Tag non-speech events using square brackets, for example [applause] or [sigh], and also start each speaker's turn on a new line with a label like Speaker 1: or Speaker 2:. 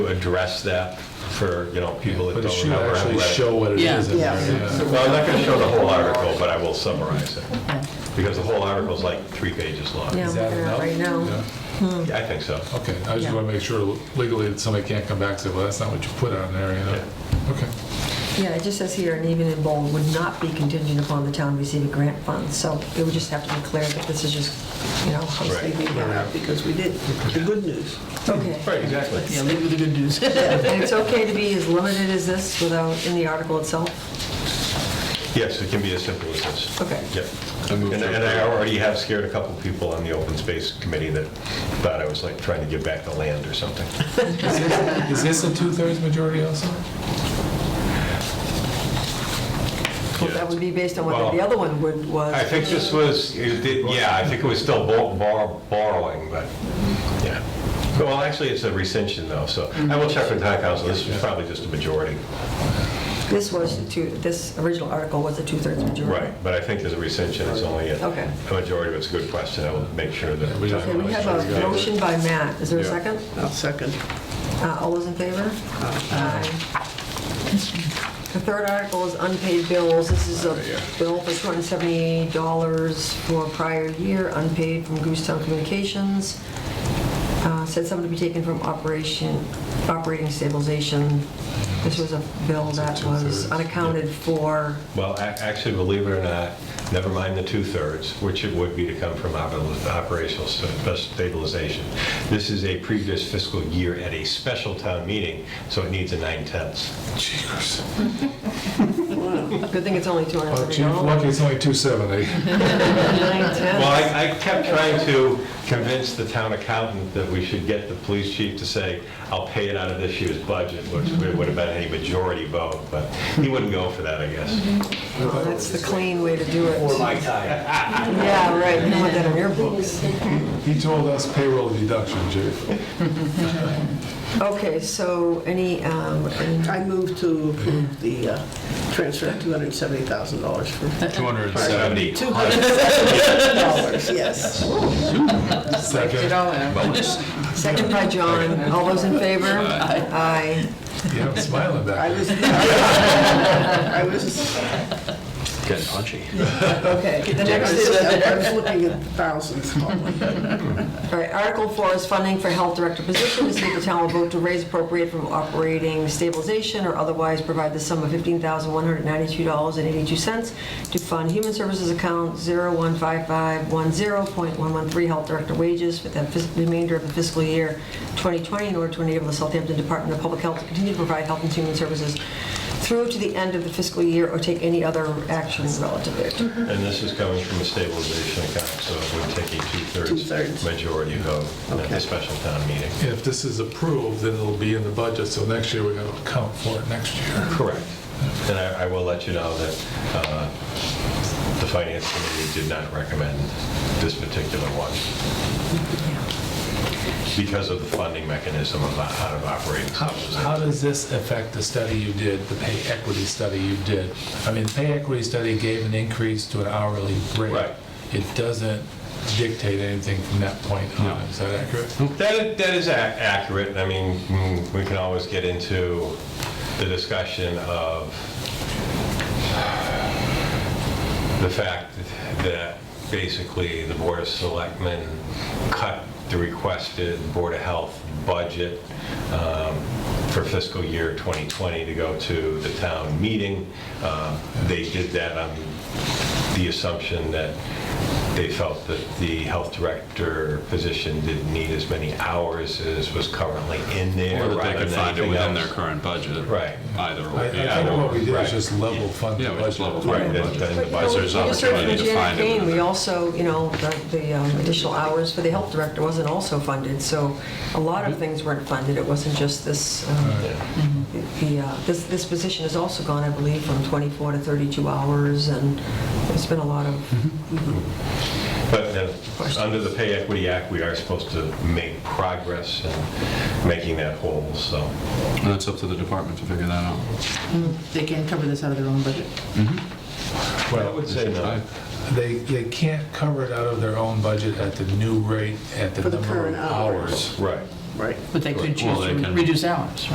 Speaker 1: address that for, you know, people that
Speaker 2: But it
Speaker 1: don't
Speaker 2: should
Speaker 1: remember. have
Speaker 2: actually
Speaker 1: read it.
Speaker 2: show what it
Speaker 3: Yeah.
Speaker 2: is. in
Speaker 4: Yeah.
Speaker 2: there, yeah.
Speaker 1: Well, I'm not going to show the whole article, but I will summarize it, because the whole article is like three pages long.
Speaker 4: Yeah.
Speaker 2: Is that
Speaker 4: We're at
Speaker 2: enough?
Speaker 4: right now.
Speaker 2: Yeah.
Speaker 1: Yeah, I think so.
Speaker 2: Okay, I just
Speaker 4: Yeah.
Speaker 2: want to make sure legally that somebody can't come back and say, well, that's not what you put on there, you know? Okay.
Speaker 4: Yeah, it just says here, and even in bold, would not be contingent upon the town receiving grant funds. So it would just have to be clear that this is just, you know,
Speaker 1: Right.
Speaker 4: housekeeping.
Speaker 3: Because we did, the good news.
Speaker 4: Okay.
Speaker 1: [laughs] Right, exactly.
Speaker 3: Yeah, leave with the good news. [laughs]
Speaker 4: And it's okay to be as limited as this without, in the article itself?
Speaker 1: Yes, it can be as simple as this.
Speaker 4: Okay.
Speaker 1: Yep. And and I already have scared a couple people on the open space committee that thought I was like trying to give back the land or something.
Speaker 2: Is this- Is this a two-thirds majority also?
Speaker 4: Well, That would be based on what the
Speaker 1: Well,
Speaker 4: other one would, was.
Speaker 1: I think this was, it did- yeah, I think it was still bor- bor- borrowing, but, yeah. Well, actually, it's a rescission though, so I will check with town council. This was probably just a majority.
Speaker 4: This was the two, this original article was a two-thirds majority.
Speaker 1: Right, but I think there's a rescission, it's only a
Speaker 4: Okay.
Speaker 1: a majority, but it's a good question, I will make sure that.
Speaker 2: We don't-
Speaker 4: Okay, we have a motion by Matt. Is there a second?
Speaker 3: I'll second.
Speaker 4: Uh, All those in favor? Aye. The third article is unpaid bills. This is a bill for $278 for prior year, unpaid from Goostown Communications. Uh, Said something to be taken from operation, operating stabilization. This was a bill that was
Speaker 2: Two-thirds.
Speaker 4: unaccounted for.
Speaker 1: Well, a- actually, believe it or not, never mind the two-thirds, which it would be to come from oper- operational sta- stabilization. This is a previous fiscal year at a special town meeting, so it needs a nine-tenths.
Speaker 2: Jeepers.
Speaker 4: Good thing it's only
Speaker 2: Oh, Chief,
Speaker 4: $270.
Speaker 2: lucky it's only 270.
Speaker 4: Nine
Speaker 1: Well,
Speaker 4: tenths.
Speaker 1: I I kept trying to convince the town accountant that we should get the police chief to say, "I'll pay it out of this year's budget," which would have been a majority vote, but he wouldn't go for that, I guess.
Speaker 4: Oh, That's the clean way to do it.
Speaker 1: time.
Speaker 4: Yeah, right. You don't want that on your books.
Speaker 2: He told us payroll deduction, Chief.
Speaker 4: Okay, so any, um, any-
Speaker 3: I move to approve the uh, transfer of $270,000 for
Speaker 1: 270.
Speaker 3: dollars, [laughs] yes.
Speaker 2: Second.
Speaker 4: second by John, all those in favor? Aye.
Speaker 2: Yeah, I'm smiling
Speaker 3: I
Speaker 2: back.
Speaker 3: [laughs] was, I was,
Speaker 5: Getting punchy.
Speaker 4: Okay,
Speaker 3: I
Speaker 4: the next
Speaker 3: was
Speaker 4: is,
Speaker 3: I was looking at thousands. [laughs]
Speaker 4: all right, Article 4 is funding for health director position, to see if the town will vote to raise appropriate from operating stabilization or otherwise provide the sum of $15,192.82 to fund human services account 015510.113 health director wages for the fis- remainder of the fiscal year 2020 in order to enable the Southampton Department of Public Health to continue to provide health and human services through to the end of the fiscal year or take any other action relative thereto.
Speaker 1: And this is coming from a stabilization account, so it would take a two-thirds
Speaker 3: Two-thirds.
Speaker 1: majority vote at
Speaker 3: Okay.
Speaker 1: the special town meeting.
Speaker 2: If this is approved, then it'll be in the budget, so next year we're going to account for it next year.
Speaker 1: Correct. And I I will let you know that uh, the finance committee did not recommend this particular one because of the funding mechanism of out of operating
Speaker 2: How,
Speaker 1: sources.
Speaker 2: how does this affect the study you did, the pay equity study you did? I mean, the pay equity study gave an increase to an hourly rate.
Speaker 1: Right.
Speaker 2: It doesn't dictate anything from that point on, is that accurate?
Speaker 1: That, that is ac- accurate. I mean, mm, we can always get into the discussion of the fact that basically the Board of Selectmen cut the requested Board of Health budget um, for fiscal year 2020 to go to the town meeting. Um, They did that on the assumption that they felt that the health director position didn't need as many hours as was currently in there.
Speaker 6: Or that
Speaker 1: rather
Speaker 6: they could
Speaker 1: than
Speaker 6: find it
Speaker 1: anything
Speaker 6: within their
Speaker 1: else.
Speaker 6: current budget.
Speaker 1: Right.
Speaker 6: Either,
Speaker 2: I I
Speaker 6: or,
Speaker 2: think
Speaker 6: yeah.
Speaker 2: what we did
Speaker 1: Right.
Speaker 2: is just level fund the
Speaker 6: Yeah, we just level
Speaker 2: budget.
Speaker 1: Right,
Speaker 6: funded the
Speaker 1: and-
Speaker 6: budget.
Speaker 1: and the
Speaker 4: But, you know,
Speaker 6: there's
Speaker 1: budget-
Speaker 4: we just heard
Speaker 6: opportunity
Speaker 4: from
Speaker 6: to
Speaker 4: Janet
Speaker 6: find it
Speaker 4: Kane, we
Speaker 6: within-
Speaker 4: also, you know, the- the um, additional hours for the health director wasn't also funded, so a lot of things weren't funded, it wasn't just this, um, the, uh, this, this position has also gone, I believe, from 24 to 32 hours, and it's been a lot of,
Speaker 1: But then, under the Pay Equity Act, we are supposed to make progress in making that whole, so.
Speaker 6: And that's up to the department to figure that out.
Speaker 7: They can cover this out of their own budget.
Speaker 1: I
Speaker 2: Well,
Speaker 1: would say no.
Speaker 2: They, they can't cover it out of their own budget at the new rate, at the
Speaker 3: For the
Speaker 2: number of
Speaker 3: current hours.
Speaker 2: hours.
Speaker 1: Right.
Speaker 3: right?
Speaker 7: But they could
Speaker 6: Right. Well,
Speaker 7: choose
Speaker 6: they
Speaker 7: to
Speaker 6: can-
Speaker 7: reduce hours,